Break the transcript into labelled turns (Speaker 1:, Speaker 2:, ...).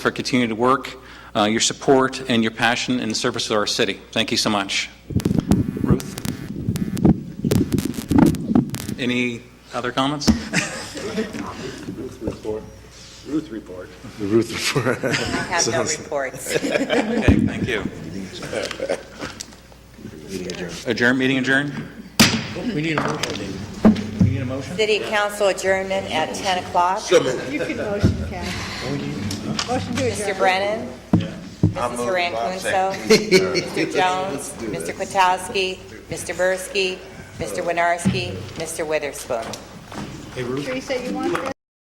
Speaker 1: for continued work, uh, your support, and your passion in the service of our city. Thank you so much. Ruth? Any other comments?
Speaker 2: Ruth report. Ruth report. The Ruth report.
Speaker 3: I have no reports.
Speaker 1: Okay, thank you. Adjourn, meeting adjourned?
Speaker 3: City Council adjournment at 10 o'clock.
Speaker 4: You can motion, Kathy. Motion to adjourn.
Speaker 3: Mr. Brennan? Mrs. Haran Kunso? Mr. Jones? Mr. Kwiatkowski? Mr. Bursky? Mr. Winarski? Mr. Witherspoon?
Speaker 4: Teresa, you want this?